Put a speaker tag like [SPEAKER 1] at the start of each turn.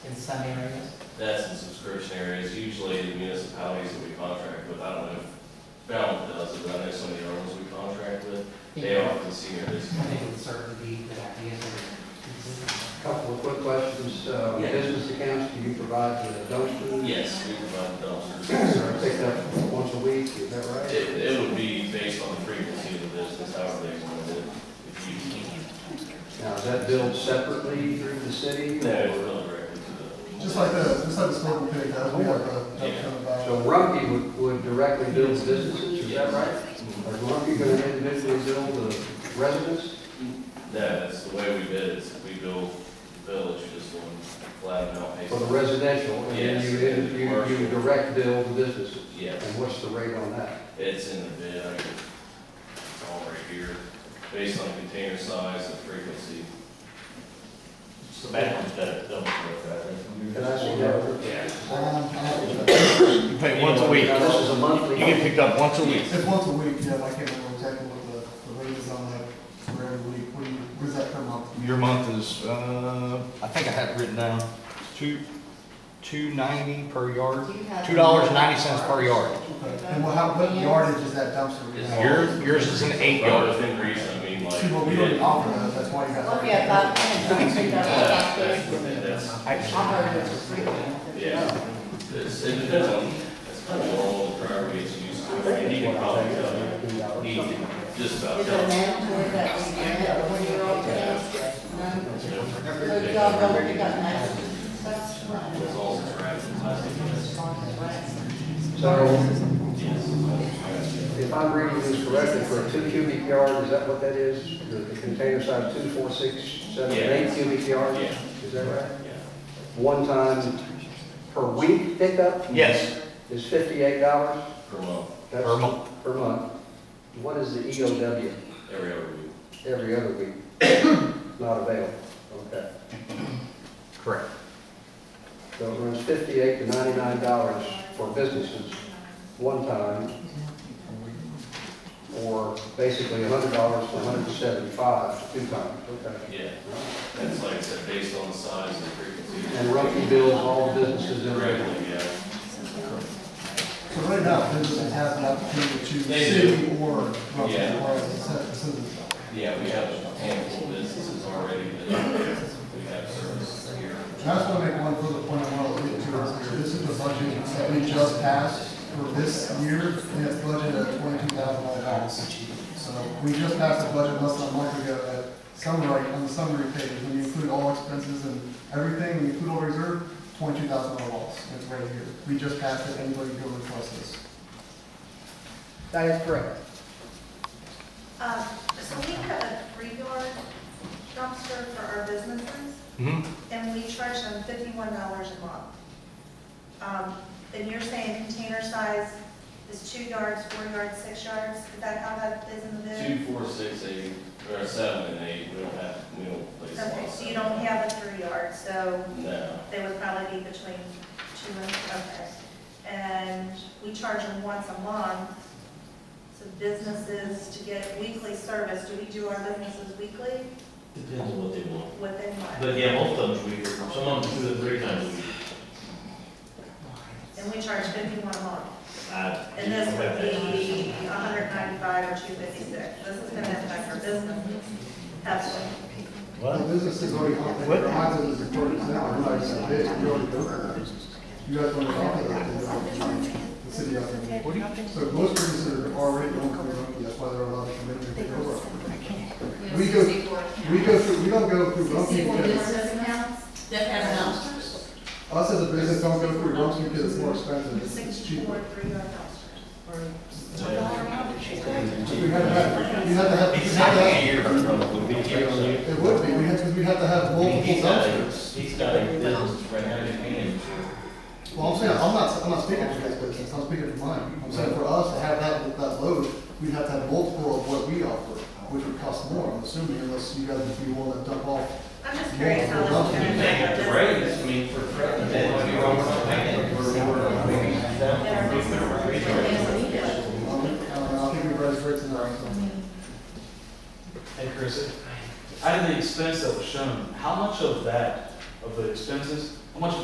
[SPEAKER 1] in some areas.
[SPEAKER 2] That's in subscription areas, usually the municipalities that we contract with, I don't know if Falmouth does, it, but I know some of the others we contract with, they often see it as,
[SPEAKER 1] I think it would certainly be a good idea to.
[SPEAKER 3] Couple of quick questions, uh,
[SPEAKER 2] Yeah.
[SPEAKER 3] business accounts, do you provide the dumpster?
[SPEAKER 2] yes, we provide dumpsters
[SPEAKER 3] Pick
[SPEAKER 2] service.
[SPEAKER 3] up once a week, is that
[SPEAKER 2] It,
[SPEAKER 3] right?
[SPEAKER 2] it would be based on the frequency of the business, however they want to do it. If you-
[SPEAKER 3] Now, is that billed separately through the city?
[SPEAKER 2] No, it's not directly to
[SPEAKER 4] Just like the, just like the smoking pig, guys, we have uh, a,
[SPEAKER 2] Yeah.
[SPEAKER 3] So Rumpke would, would directly bill the businesses, is that right?
[SPEAKER 2] Mm-hmm.
[SPEAKER 3] Or is Rumpke gonna individually bill the residents?
[SPEAKER 2] the, no, that's the way we bid, it, is we build the village just one flat amount
[SPEAKER 3] For the
[SPEAKER 2] basis.
[SPEAKER 3] residential, and then you,
[SPEAKER 2] Yes.
[SPEAKER 3] you, you direct bill the businesses?
[SPEAKER 2] Yes.
[SPEAKER 3] And what's the rate on that?
[SPEAKER 2] It's in the bid, I can- it's all right here, based on container size and frequency.
[SPEAKER 5] So that one's better, don't worry
[SPEAKER 3] Can I see that?
[SPEAKER 2] Yeah.
[SPEAKER 4] Um,
[SPEAKER 5] You pay once a week.
[SPEAKER 3] Now, this is a
[SPEAKER 5] You
[SPEAKER 3] monthly.
[SPEAKER 5] get picked up once a week.
[SPEAKER 4] It's once a week, yeah, I can't remember exactly what the, the rate is on that for every week, what do you, what is that per month?
[SPEAKER 5] Your month is, uh, I think I had it written down, two, two ninety per yard. Two dollars and ninety cents per yard.
[SPEAKER 4] Okay. And well, how, what yardage is that dumpster?
[SPEAKER 2] It's
[SPEAKER 4] Yeah.
[SPEAKER 5] Yours, yours is an eight
[SPEAKER 2] Well,
[SPEAKER 5] yard.
[SPEAKER 2] within reason, I mean, like.
[SPEAKER 4] See, well, we don't offer that, that's why you guys.
[SPEAKER 6] Look at that, and think
[SPEAKER 2] Yeah,
[SPEAKER 6] that's what
[SPEAKER 2] that's
[SPEAKER 6] that is.
[SPEAKER 2] within- that's-
[SPEAKER 6] I heard it was free.
[SPEAKER 2] Yeah, it's, it depends on, it's kind of what all the driver gets used to, and he can probably tell you, he can just about
[SPEAKER 6] Is
[SPEAKER 2] tell.
[SPEAKER 6] it
[SPEAKER 2] you.
[SPEAKER 6] mandatory that we get it when you're on campus? No? So you all know you got matches and stuff?
[SPEAKER 2] It's all trash and plastic, yes,
[SPEAKER 3] So,
[SPEAKER 2] yes.
[SPEAKER 3] If I'm reading this correctly, for a two cubic yard, is that what that is? The- The container size two, four, six, seven, and eight cubic yards?
[SPEAKER 2] Yeah.
[SPEAKER 3] Is that right?
[SPEAKER 2] Yeah.
[SPEAKER 3] One time per week pickup
[SPEAKER 5] Yes,
[SPEAKER 3] is fifty-eight dollars?
[SPEAKER 2] Per month,
[SPEAKER 5] per month.
[SPEAKER 3] Per month. What is the EOW?
[SPEAKER 2] every other week.
[SPEAKER 3] Every other week? Not available. Okay.
[SPEAKER 5] Correct.
[SPEAKER 3] So it runs fifty-eight to ninety-nine dollars for businesses, one time, or basically hundred dollars to $175 two times. Okay.
[SPEAKER 2] Yeah, that's like I said, based on the size and frequency.
[SPEAKER 3] And Rumpke bills all businesses in Richmond.
[SPEAKER 2] Directly, yeah.
[SPEAKER 4] So right now, businesses have the opportunity to choose
[SPEAKER 2] They
[SPEAKER 4] city or, or,
[SPEAKER 2] Yeah.
[SPEAKER 4] citizen.
[SPEAKER 2] Yeah, we have a handful of businesses already that we have service here.
[SPEAKER 4] And I just want to make one further point I want to leave to earlier. This is the budget that we just passed for this year, and it's budgeted at twenty-two thousand dollars. So we just passed a budget less than a month ago that summary, on the summary page, when you include all expenses and everything, when you include all reserve, twenty-two thousand dollar loss. It's right here. We just passed it. Anybody go request this.
[SPEAKER 3] That is correct.
[SPEAKER 7] Um, So we have a three-yard dumpster for our businesses,
[SPEAKER 5] Mhm.
[SPEAKER 7] and we charge them fifty-one dollars a month. Um, And you're saying container size is two yards, four yards, six yards? Is that how that is in the bid?
[SPEAKER 2] Two, four, six, eight, or seven and eight, we don't have, we don't place a lot.
[SPEAKER 7] Okay, so you don't have a three-yard, so
[SPEAKER 2] No,
[SPEAKER 7] they would probably be between two and, okay. And we charge them once a month to businesses to get weekly service. Do we do our businesses weekly?
[SPEAKER 8] Depends on what they want.
[SPEAKER 7] Within what?
[SPEAKER 8] But yeah, most of them, we, some of them two to three times a week.
[SPEAKER 7] And we charge fifty-one a month.
[SPEAKER 8] I-
[SPEAKER 7] And this would be hundred ninety-five or two fifty-six. This is gonna affect our business heavily.
[SPEAKER 4] The businesses already offer, their houses is recorded now, we're not even bid, we already go there. You guys want to offer that, they don't charge the city of it.
[SPEAKER 5] What do you think?
[SPEAKER 4] So most businesses are already on Clearwater, that's why they're allowed to come in and go over. We go, we go through, we don't go through Rumpke because,
[SPEAKER 6] That has dumpsters?
[SPEAKER 4] us as a business don't go through Rumpke because it's more expensive, it's- it's cheaper.
[SPEAKER 7] Sixty-four, three hundred dollars.
[SPEAKER 4] We had to have, we had to have, we had to have- it would be, we had, because we had to have multiple
[SPEAKER 2] he's got, a-
[SPEAKER 4] dumpsters.
[SPEAKER 2] he's got a business right now, he's paying
[SPEAKER 4] Well, I'm saying, I'm not, I'm not speaking for this business, I'm speaking for mine. I'm saying for us to have that, that load, we'd have to have multiple of what we offer, which would cost more, I'm assuming, unless you guys would be willing to dump off.
[SPEAKER 7] I'm just curious how this. is
[SPEAKER 4] You
[SPEAKER 7] gonna
[SPEAKER 4] can't
[SPEAKER 7] affect
[SPEAKER 2] the
[SPEAKER 7] our
[SPEAKER 2] raise, I mean, for, for,
[SPEAKER 7] business.
[SPEAKER 4] Um, I don't know, I think we've raised rates in our.
[SPEAKER 9] Hey, Chris, out of the expense that was shown, how much of that, of the expenses, How much